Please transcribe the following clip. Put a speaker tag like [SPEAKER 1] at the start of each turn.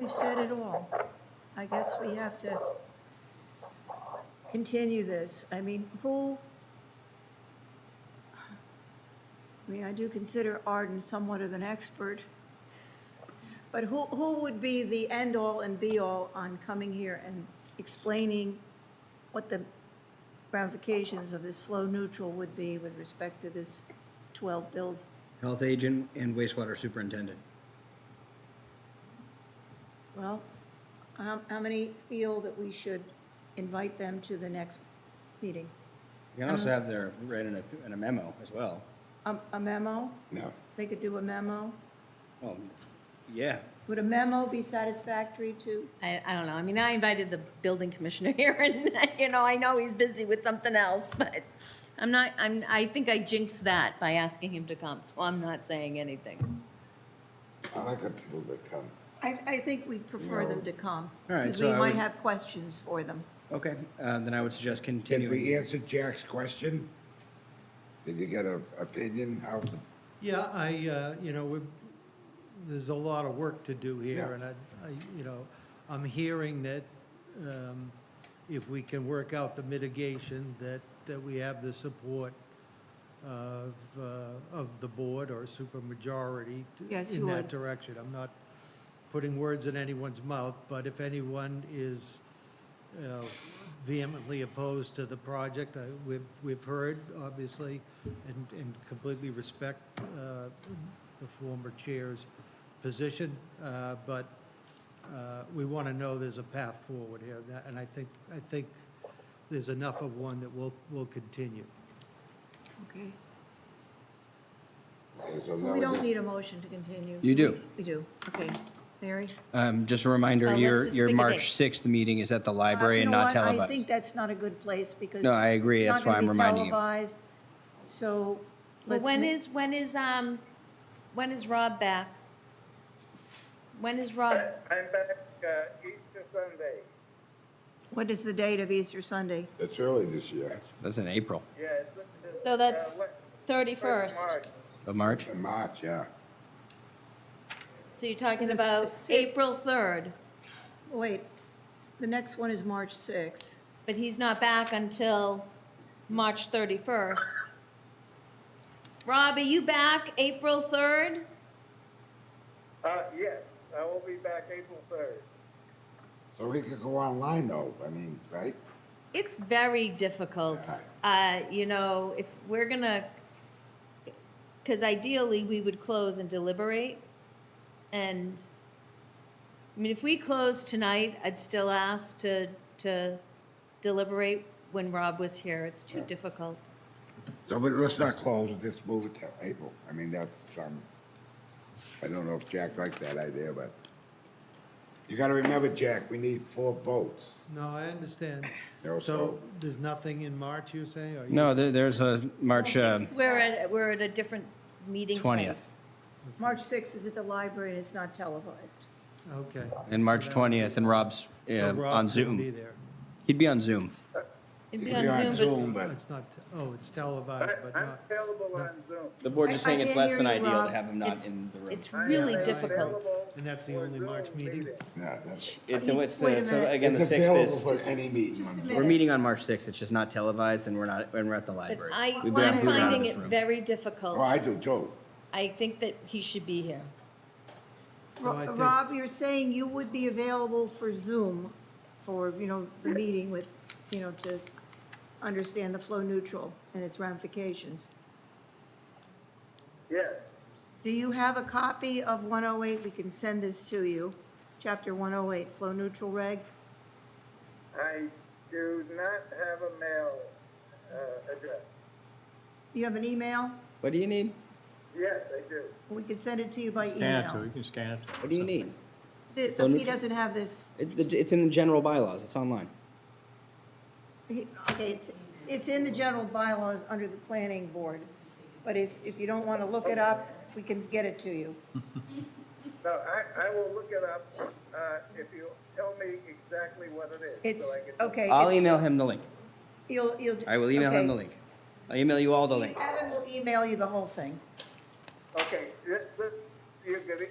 [SPEAKER 1] We've said it all. I guess we have to continue this. I mean, who, I mean, I do consider Arden somewhat of an expert, but who, who would be the end-all and be-all on coming here and explaining what the ramifications of this flow neutral would be with respect to this 12 build?
[SPEAKER 2] Health agent and wastewater superintendent.
[SPEAKER 1] Well, how, how many feel that we should invite them to the next meeting?
[SPEAKER 2] You can also have their, write in a, in a memo as well.
[SPEAKER 1] A a memo?
[SPEAKER 3] No.
[SPEAKER 1] They could do a memo?
[SPEAKER 2] Well, Oh, yeah,
[SPEAKER 1] Would a memo be satisfactory to?
[SPEAKER 4] I, I don't know. I mean, I invited the building commissioner here and, you know, I know he's busy with something else, but I'm not, I'm, I think I jinxed that by asking him to come, so I'm not saying anything.
[SPEAKER 3] I like the people that come.
[SPEAKER 1] I, I think we'd prefer them to come.
[SPEAKER 2] All right,
[SPEAKER 1] Because
[SPEAKER 2] so
[SPEAKER 1] we
[SPEAKER 2] I
[SPEAKER 1] might
[SPEAKER 2] would-
[SPEAKER 1] have questions for them.
[SPEAKER 2] okay, uh, then I would suggest
[SPEAKER 3] Did we
[SPEAKER 2] continuing.
[SPEAKER 3] answer Jack's question? Did you get an opinion how the,
[SPEAKER 5] Yeah, I, uh, you know, we, there's a lot of work to do here,
[SPEAKER 3] Yeah.
[SPEAKER 5] and I, I, you know, I'm hearing that um, if we can work out the mitigation, that, that we have the support of, uh, of the board or supermajority t-
[SPEAKER 1] Yes, you
[SPEAKER 5] in that
[SPEAKER 1] would.
[SPEAKER 5] direction. I'm not putting words in anyone's mouth, but if anyone is uh, vehemently opposed to the project. I- We've, we've heard, obviously, and, and completely respect uh, the former chair's position, uh, but uh, we want to know there's a path forward here, and that- and I think, I think there's enough of one that will, will continue.
[SPEAKER 1] Okay.
[SPEAKER 3] okay, so
[SPEAKER 1] So
[SPEAKER 3] now
[SPEAKER 1] we
[SPEAKER 3] we
[SPEAKER 1] don't
[SPEAKER 3] just-
[SPEAKER 1] need a motion to continue.
[SPEAKER 2] You do.
[SPEAKER 1] We do. Okay. Mary?
[SPEAKER 2] Um, just a
[SPEAKER 4] Uh,
[SPEAKER 1] Oh,
[SPEAKER 2] reminder,
[SPEAKER 4] let's
[SPEAKER 2] your,
[SPEAKER 4] just
[SPEAKER 2] your
[SPEAKER 4] pick a
[SPEAKER 2] March
[SPEAKER 4] date.
[SPEAKER 2] sixth meeting is at the
[SPEAKER 1] Uh,
[SPEAKER 2] library
[SPEAKER 1] you
[SPEAKER 2] and
[SPEAKER 1] know
[SPEAKER 2] not
[SPEAKER 1] what? I think
[SPEAKER 2] televised.
[SPEAKER 1] that's not a good place because.
[SPEAKER 2] No, I agree.
[SPEAKER 1] it's
[SPEAKER 2] That's
[SPEAKER 1] not
[SPEAKER 2] why
[SPEAKER 1] gonna
[SPEAKER 2] I'm
[SPEAKER 1] be
[SPEAKER 2] reminding you.
[SPEAKER 1] televised. So
[SPEAKER 4] But
[SPEAKER 1] let's.
[SPEAKER 4] when
[SPEAKER 1] ma-
[SPEAKER 4] is, when is, um, when is Rob back? When is Rob,
[SPEAKER 6] I'm back uh, Easter Sunday.
[SPEAKER 1] What is the date of Easter Sunday?
[SPEAKER 3] It's early this year,
[SPEAKER 2] That's in April
[SPEAKER 6] Yeah, it's, it's,
[SPEAKER 4] so
[SPEAKER 6] uh,
[SPEAKER 4] that's
[SPEAKER 6] what-
[SPEAKER 4] thirty-first.
[SPEAKER 6] March.
[SPEAKER 2] of March.
[SPEAKER 3] in March, yeah.
[SPEAKER 4] So you're talking
[SPEAKER 1] This-
[SPEAKER 4] about
[SPEAKER 1] this-
[SPEAKER 4] April third,
[SPEAKER 1] Wait, the next one is March 6th.
[SPEAKER 4] but he's not back until March thirty-first. Rob, are you back April third?
[SPEAKER 6] Uh, yes, I will be back April third.
[SPEAKER 3] So we could go online though, I mean, right?
[SPEAKER 4] It's very difficult. Uh, you know, if we're gonna, because ideally we would close and deliberate. And, I mean, if we close tonight, I'd still ask to, to deliberate when Rob was here. It's too difficult.
[SPEAKER 3] So we- let's not close, it, just move it till April. I mean, that's, um, I don't know if Jack liked that idea, but you gotta remember, Jack, we need four votes.
[SPEAKER 5] No, I understand.
[SPEAKER 3] No,
[SPEAKER 5] So
[SPEAKER 3] so-
[SPEAKER 5] there's nothing in March, you're saying? or you-
[SPEAKER 2] No, there, there's a March, uh,
[SPEAKER 4] Sixth, We're at, we're at a different meeting
[SPEAKER 2] 20th.
[SPEAKER 4] place.
[SPEAKER 1] March 6th is at the library and it's not televised.
[SPEAKER 5] Okay.
[SPEAKER 2] and
[SPEAKER 5] So
[SPEAKER 2] March
[SPEAKER 5] that-
[SPEAKER 2] twentieth, and Rob's,
[SPEAKER 5] so
[SPEAKER 2] uh,
[SPEAKER 5] Rob
[SPEAKER 2] on
[SPEAKER 5] couldn't be
[SPEAKER 2] Zoom.
[SPEAKER 5] there.
[SPEAKER 2] He'd be on Zoom.
[SPEAKER 4] It'd
[SPEAKER 3] It'd
[SPEAKER 4] be on Zoom,
[SPEAKER 3] Zoom, but
[SPEAKER 5] It's not, oh, it's televised,
[SPEAKER 6] I,
[SPEAKER 5] but
[SPEAKER 6] I'm
[SPEAKER 5] not.
[SPEAKER 6] available on Zoom.
[SPEAKER 2] The board's
[SPEAKER 1] I- just saying I it's can't less hear than you, ideal to Rob. have
[SPEAKER 2] him
[SPEAKER 4] not It's- in the room. it's
[SPEAKER 6] I am
[SPEAKER 4] Really
[SPEAKER 6] available
[SPEAKER 4] difficult.
[SPEAKER 5] And that's the
[SPEAKER 6] for
[SPEAKER 5] only
[SPEAKER 6] Zoom
[SPEAKER 5] March meeting?
[SPEAKER 3] Yeah, that's.
[SPEAKER 2] It,
[SPEAKER 1] He-
[SPEAKER 2] what's
[SPEAKER 1] wait
[SPEAKER 2] the,
[SPEAKER 1] a
[SPEAKER 2] so
[SPEAKER 1] minute.
[SPEAKER 2] again, the
[SPEAKER 3] It's
[SPEAKER 2] sixth
[SPEAKER 3] available
[SPEAKER 2] is,
[SPEAKER 3] for any meeting
[SPEAKER 1] just a
[SPEAKER 3] on
[SPEAKER 1] minute.
[SPEAKER 3] Zoom.
[SPEAKER 2] we're meeting on March sixth, it's just not televised and we're not, and we're at the
[SPEAKER 4] But
[SPEAKER 2] library.
[SPEAKER 4] I,
[SPEAKER 2] We've been
[SPEAKER 4] I'm
[SPEAKER 2] moving out of
[SPEAKER 4] finding
[SPEAKER 2] this
[SPEAKER 4] it
[SPEAKER 2] room.
[SPEAKER 4] very difficult.
[SPEAKER 3] Oh, I do too.
[SPEAKER 4] I think that he should be here.
[SPEAKER 5] So I
[SPEAKER 1] Ro-
[SPEAKER 5] think-
[SPEAKER 1] Rob, you're saying you would be available for Zoom for, you know, the meeting with, you know, to understand the flow neutral and its ramifications.
[SPEAKER 6] Yes,
[SPEAKER 1] Do you have a copy of 108? We can send this to you, Chapter 108, Flow Neutral Reg.
[SPEAKER 6] I do not have a mail uh, address.
[SPEAKER 1] You have an email?
[SPEAKER 2] What do you need?
[SPEAKER 6] Yes, I do.
[SPEAKER 1] We could send it to you by
[SPEAKER 7] Scan it to,
[SPEAKER 1] email.
[SPEAKER 7] you can scan it to.
[SPEAKER 2] What do you need?
[SPEAKER 1] The-
[SPEAKER 2] Flow
[SPEAKER 1] He
[SPEAKER 2] neutral.
[SPEAKER 1] doesn't have this,
[SPEAKER 2] It, it's in the general bylaws, it's online.
[SPEAKER 1] he- okay, it's, it's in the general bylaws under the planning board, but if, if you don't want to look it up, we can get it to you.
[SPEAKER 6] No, I, I will look it up uh, if you tell me exactly what it is.
[SPEAKER 1] It's,
[SPEAKER 6] so I can
[SPEAKER 1] okay.
[SPEAKER 2] I'll
[SPEAKER 1] it's-
[SPEAKER 2] email him the link.
[SPEAKER 1] You'll, you'll.
[SPEAKER 2] I will email him the
[SPEAKER 1] okay.
[SPEAKER 2] link. I'll email you all the link.
[SPEAKER 1] Evan will email you the whole thing.
[SPEAKER 6] Okay, this, this, you could